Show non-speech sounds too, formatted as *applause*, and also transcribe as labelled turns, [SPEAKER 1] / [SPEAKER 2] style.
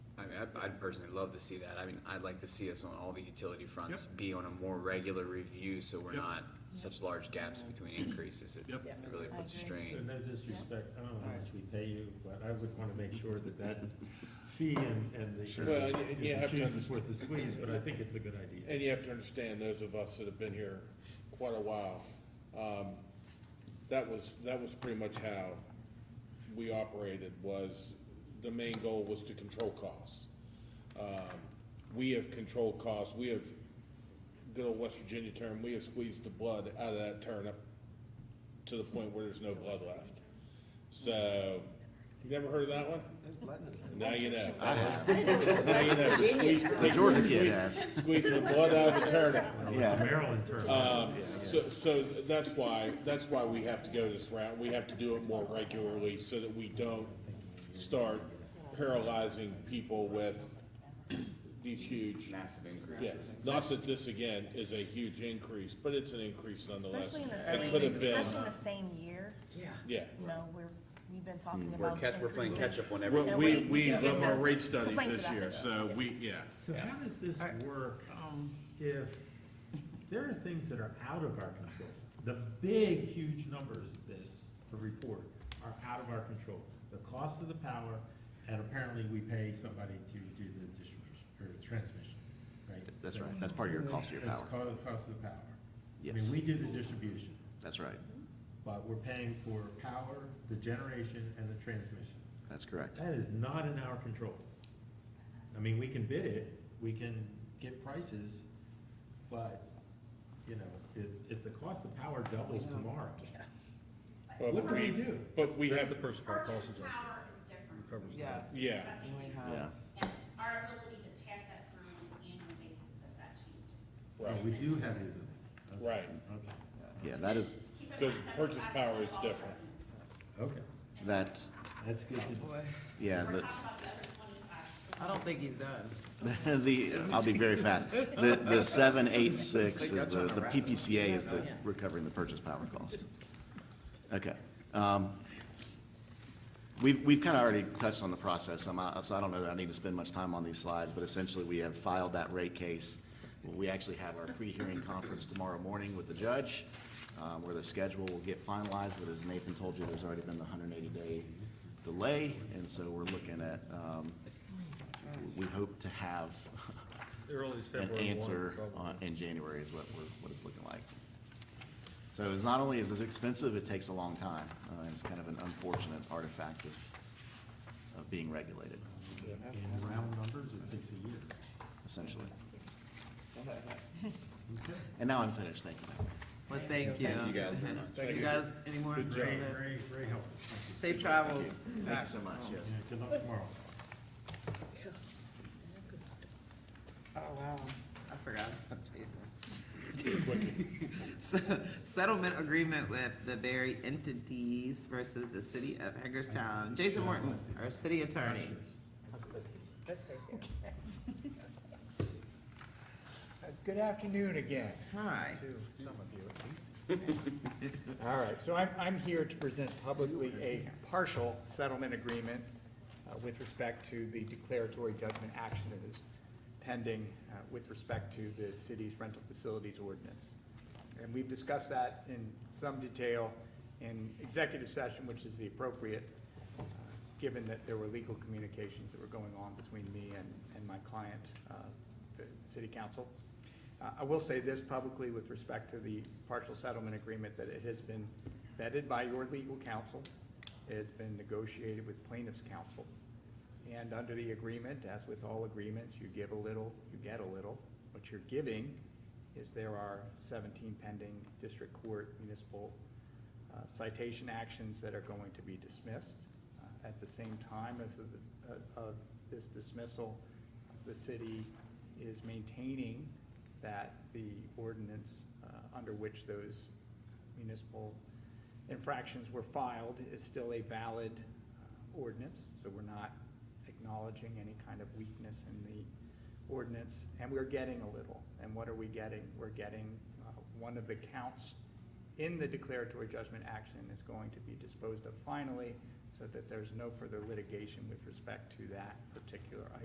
[SPEAKER 1] I'd, I'd personally love to see that. I mean, I'd like to see us on all the utility fronts be on a more regular review, so we're
[SPEAKER 2] Yep.
[SPEAKER 1] not such large gaps between increases. It
[SPEAKER 2] Yep.
[SPEAKER 1] it really
[SPEAKER 3] I
[SPEAKER 1] puts a
[SPEAKER 3] agree.
[SPEAKER 1] strain.
[SPEAKER 4] So no disrespect, I don't know how much we pay you, but I would wanna make sure that that fee and, and the.
[SPEAKER 5] Well, and- and you
[SPEAKER 4] if the
[SPEAKER 5] have to-
[SPEAKER 4] Juice is worth the squeeze, but I think it's a good idea.
[SPEAKER 5] And you have to understand, those of us that have been here quite a while, um, that was, that was pretty much how we operated, was the main goal was to control costs. Um, we have controlled costs, we have, good old West Virginia term, we have squeezed the blood out of that turnip to the point where there's no blood left. So, you never heard of that one? Now you know. Now you know. Squeeze-
[SPEAKER 1] The Georgia kid
[SPEAKER 5] squeeze-
[SPEAKER 1] has.
[SPEAKER 5] Squeezing the blood out of the turnip.
[SPEAKER 1] *laughs*
[SPEAKER 4] Well,
[SPEAKER 1] Yeah.
[SPEAKER 4] it's a Maryland
[SPEAKER 5] Uh,
[SPEAKER 4] term.
[SPEAKER 5] So, so that's why, that's why we have to go this route. We have to do it more regularly so that we don't start paralyzing people with these huge,
[SPEAKER 1] Massive
[SPEAKER 5] yeah.
[SPEAKER 1] increases.
[SPEAKER 5] Not that this again is a huge increase, but it's an increase nonetheless.
[SPEAKER 3] Especially in the
[SPEAKER 5] It could
[SPEAKER 3] same,
[SPEAKER 5] have been,
[SPEAKER 3] especially in the same year,
[SPEAKER 5] yeah.
[SPEAKER 3] you know, we're, we've been talking
[SPEAKER 1] We're
[SPEAKER 3] about
[SPEAKER 1] catch, we're playing catch
[SPEAKER 3] increases.
[SPEAKER 1] up on
[SPEAKER 5] We,
[SPEAKER 1] everything.
[SPEAKER 5] we,
[SPEAKER 3] we-
[SPEAKER 5] we
[SPEAKER 3] yeah.
[SPEAKER 5] love our rate
[SPEAKER 3] Complaints
[SPEAKER 5] studies this
[SPEAKER 3] about
[SPEAKER 5] year,
[SPEAKER 3] it.
[SPEAKER 5] so we, yeah.
[SPEAKER 4] So how does this work um, if there are things that are out of our control? The big, huge numbers of this, the report, are out of our control. The cost of the power, and apparently we pay somebody to do the distribution, or transmission, right?
[SPEAKER 6] That's
[SPEAKER 4] So-
[SPEAKER 6] right, that's part of your cost of your
[SPEAKER 4] It's
[SPEAKER 6] power,
[SPEAKER 4] co- the cost of the power.
[SPEAKER 6] Yes.
[SPEAKER 4] I mean, we do the distribution,
[SPEAKER 6] that's right,
[SPEAKER 4] but we're paying for power, the generation, and the transmission.
[SPEAKER 6] that's correct.
[SPEAKER 4] That is not in our control. I mean, we can bid it, we can get prices, but, you know, if, if the cost of power doubles tomorrow,
[SPEAKER 5] But
[SPEAKER 4] what do we
[SPEAKER 5] we-
[SPEAKER 4] do?
[SPEAKER 5] But we have,
[SPEAKER 2] purchase
[SPEAKER 7] Purchase power is different.
[SPEAKER 3] Yes.
[SPEAKER 5] yeah.
[SPEAKER 7] That's
[SPEAKER 3] And we
[SPEAKER 7] different.
[SPEAKER 3] have-
[SPEAKER 6] Yeah,
[SPEAKER 7] And our ability to pass that through on an annual basis as that changes.
[SPEAKER 4] Oh,
[SPEAKER 5] Right.
[SPEAKER 4] we do have the ability. Okay,
[SPEAKER 5] Right.
[SPEAKER 6] yeah, that is,
[SPEAKER 7] Keep in mind,
[SPEAKER 5] Because purchase
[SPEAKER 7] 75%
[SPEAKER 5] power is
[SPEAKER 7] of all
[SPEAKER 5] different.
[SPEAKER 7] revenue.
[SPEAKER 4] Okay,
[SPEAKER 6] that,
[SPEAKER 4] that's good to know.
[SPEAKER 6] yeah,
[SPEAKER 7] We're
[SPEAKER 6] the,
[SPEAKER 7] talking about the other twenty-five. so
[SPEAKER 3] I don't think he's done.
[SPEAKER 6] the, *laughs* I'll be very fast. The, the seven eight six is the, the PPCA is the recovering the purchase power cost. Okay. um, We've, we've kind of already touched on the process, I'm, uh, so I don't know that I need to spend much time on these slides, but essentially, we have filed that rate case. We actually have our pre-hearing conference tomorrow morning with the judge, uh, where the schedule will get finalized, but as Nathan told you, there's already been the hundred and eighty day delay, and so we're looking at, um, we hope to have an answer on, in January is what we're, what it's looking like. So it's not only is this expensive, it takes a long time. Uh, it's kind of an unfortunate artifact of, of being regulated,
[SPEAKER 4] In round numbers, it takes a year.
[SPEAKER 6] essentially. And now I'm finished, thank you.
[SPEAKER 3] Well, thank you.
[SPEAKER 1] Thank you guys very much.
[SPEAKER 3] You guys, any more?
[SPEAKER 4] Very, very, very helpful.
[SPEAKER 3] Safe travels.
[SPEAKER 6] Thank you so much, yes.
[SPEAKER 4] Yeah, good luck tomorrow.
[SPEAKER 3] Oh, wow, I forgot, Jason. Se- Settlement agreement with the varied entities versus the city of Hagerstown. Jason Morton, our city attorney.
[SPEAKER 8] Uh, Good afternoon again
[SPEAKER 3] Hi.
[SPEAKER 8] to some of you at least. All right, so I'm, I'm here to present publicly a partial settlement agreement uh, with respect to the declaratory judgment action that is pending uh, with respect to the city's rental facilities ordinance. And we've discussed that in some detail in executive session, which is the appropriate, uh, given that there were legal communications that were going on between me and, and my client, uh, the city council. Uh, I will say this publicly with respect to the partial settlement agreement, that it has been vetted by your legal counsel. It has been negotiated with plaintiff's counsel. And under the agreement, as with all agreements, you give a little, you get a little. What you're giving is there are seventeen pending district court municipal uh, citation actions that are going to be dismissed. Uh, At the same time as of, the- uh, of this dismissal, the city is maintaining that the ordinance uh, under which those municipal infractions were filed is still a valid uh, ordinance, so we're not acknowledging any kind of weakness in the ordinance, and we're getting a little. And what are we getting? We're getting, uh, one of the counts in the declaratory judgment action is going to be disposed of finally, so that there's no further litigation with respect to that particular item.